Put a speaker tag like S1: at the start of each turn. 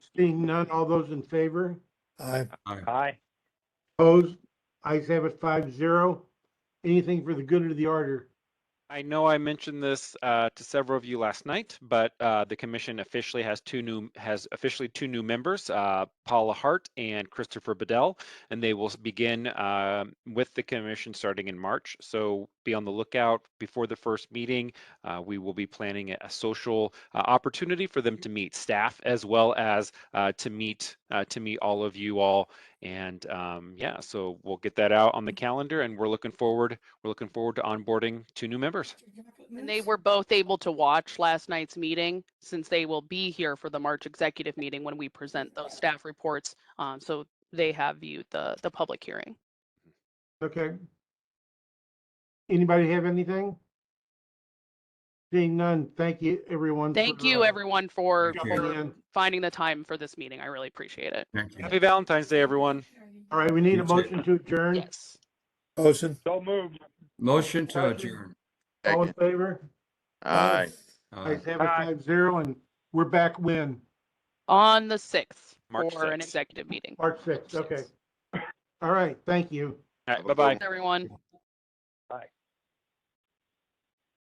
S1: Seeing none, all those in favor?
S2: Aye.
S3: Aye.
S1: Opposed? Ayes have it five zero. Anything for the good of the order?
S3: I know I mentioned this uh, to several of you last night, but uh, the commission officially has two new has officially two new members, uh, Paula Hart and Christopher Bedell, and they will s- begin um with the commission starting in March. So be on the lookout before the first meeting. Uh, we will be planning a- a social uh, opportunity for them to meet staff as well as uh, to meet uh, to meet all of you all. And um, yeah, so we'll get that out on the calendar, and we're looking forward we're looking forward to onboarding two new members.
S4: And they were both able to watch last night's meeting since they will be here for the March executive meeting when we present those staff reports. Um, so they have viewed the, the public hearing.
S1: Okay. Anybody have anything? Seeing none, thank you, everyone.
S4: Thank
S1: for,
S4: you,
S1: uh,
S4: everyone, for
S5: Thank you.
S1: jumping in.
S4: finding the time for this meeting. I really appreciate it.
S5: Thank you.
S3: Happy Valentine's Day, everyone.
S1: All right, we need a
S5: You too.
S1: motion to adjourn.
S4: Yes.
S2: Motion.
S6: So moved.
S5: Motion to adjourn.
S1: All in
S7: Second.
S1: favor?
S7: Aye.
S5: Uh,
S1: Ayes have it
S6: Aye.
S1: five zero, and we're back when?
S4: On the sixth
S3: March
S4: for an
S3: 6th.
S4: executive meeting.
S1: March sixth,
S4: March
S1: okay.
S4: sixth.
S1: All right, thank you.
S3: All right,
S7: Have a
S3: bye
S7: good
S3: bye.
S4: Everyone.